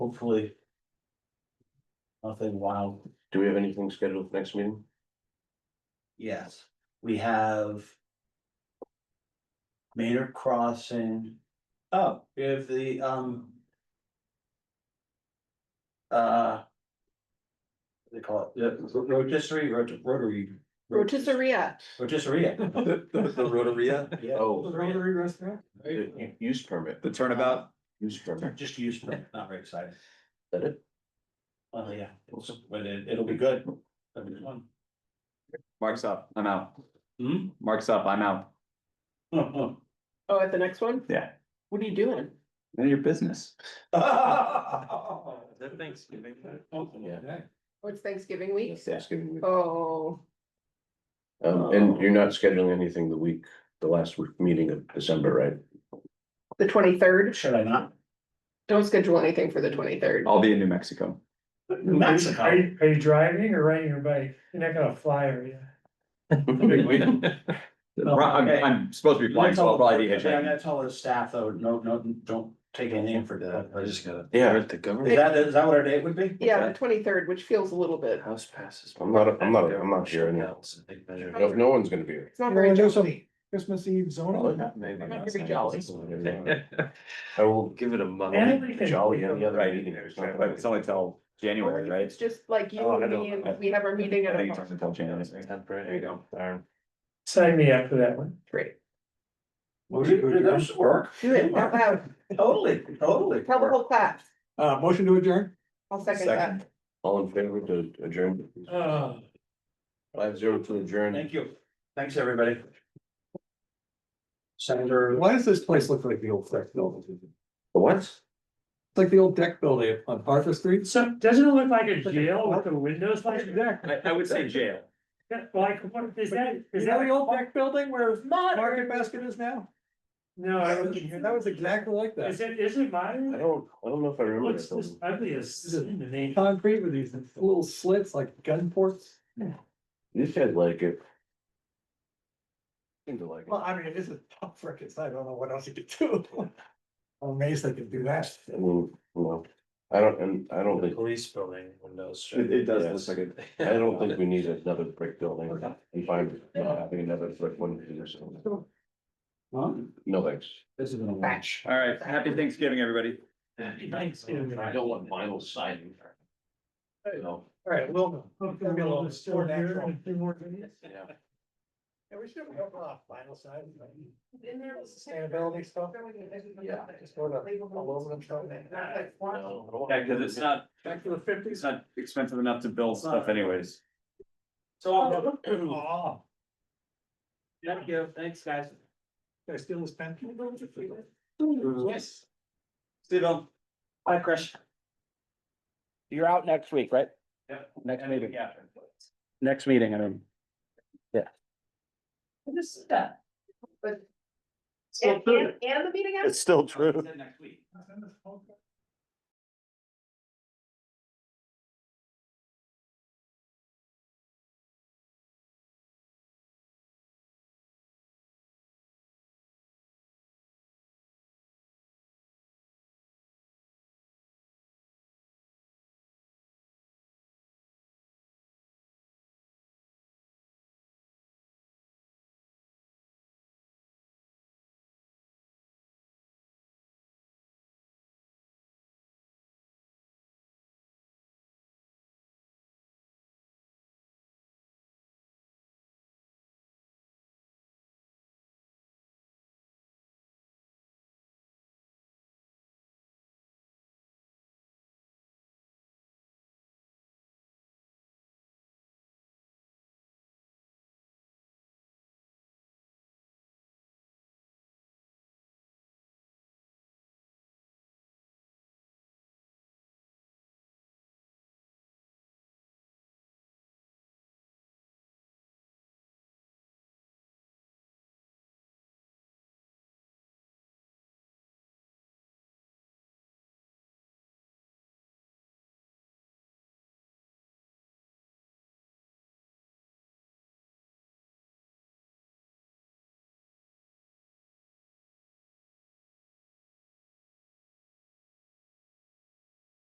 hopefully. Nothing wild, Do we have anything scheduled for next meeting? yes, we have. Maynard Crossing, oh, we have the, um. Uh. what do They call it, the ro- rotisserie, rot- rotary. Rotisseria. Rotisserie. Oh, The, the, the Rotaria, Yeah, Oh, Rotary restaurant? the use permit, the turnabout, use permit, just used, to it, not very excited, that it? well, yeah, it's- but it, it'll be good. It'll be fun. Mark's up, I'm out, Hmm? Mark's up, I'm out, Oh, at the next one? Yeah. What are you doing? none of your business. Thanksgiving. Oh, It's Thanksgiving week? That's Thanksgiving week. Oh, Um, and you're not scheduling anything the week, the last week meeting of December, right? the twenty-third? Should I not? Don't schedule anything for the twenty-third. I'll be in New Mexico, Mexico. Are you, are you driving or riding your bike? You're not gonna fly, are you? I'm, I'm supposed to be flying, so I'll probably be I mean, I hitchhiking. gotta tell the staff though, no, no, don't take any name for that, I just gotta. Yeah, the Is government that, is that what our date would be? Yeah, the twenty-third, which feels a little bit, house passes. I'm not, I'm not, I'm not here anymore. No, no one's gonna be here. it's not very jolly. Christmas Eve Oh, zoning. We're not very jolly. I will give it a month. Anybody can- Jolly any other Right, meeting. It's not But it's like- only till January, right? It's just like you Oh, I and don't- me and we have our meeting I at think it's a only till January. There you go. Darn. Sign me up for that one. three. Would it, would it work? Do it out loud. Totally, totally. Tell the whole class. Uh, motion to adjourn? I'll second that. Uh, All in favor to adjourn? Oh. Five zero to adjourn. Thank you. Thanks, everybody. Senator. Why does this place look like the old deck building? It's The What? like the old deck building on Arthur Street. So doesn't it look like a jail with the windows like that? I, I would say jail. That- Like, what is that? Is Is that that the old deck building where modern? Market Basket is now? No, I That was. was that was exactly like Is that. it, is I it modern? don't, I don't know if I remember. Looks that this building. ugly as in the name. Concrete with these little slits like gun ports. These guys like it. Seem to like it. Well, I mean, it is a tough frickin' site. I don't know what else you could do. I'm amazed they could do that. I mean, no, I don't, and I don't think, police building windows. It, it does Yes. look like it. I don't think we need another brick building. We find not having another brick one or something. No, thanks. This is gonna match. All right, happy Thanksgiving, everybody. Thanksgiving. I don't want vinyl siding. You know. All right, well. Hopefully we'll have store here in a few more minutes. Yeah, we should have gone off vinyl side. Sustainability stuff. Yeah. Just sort of aluminum something. Yeah, cause it's not, Back to the it's fifties. not expensive enough to build stuff anyways. So, I'll- Oh, thank you, thanks, guys. did I steal this pen? Yes. Steve, hi, Chris. You're out next week, right? Yep. Next meeting, Yeah. next meeting, I mean. This is that. But. Still and the meeting. after? It's still true. Next week.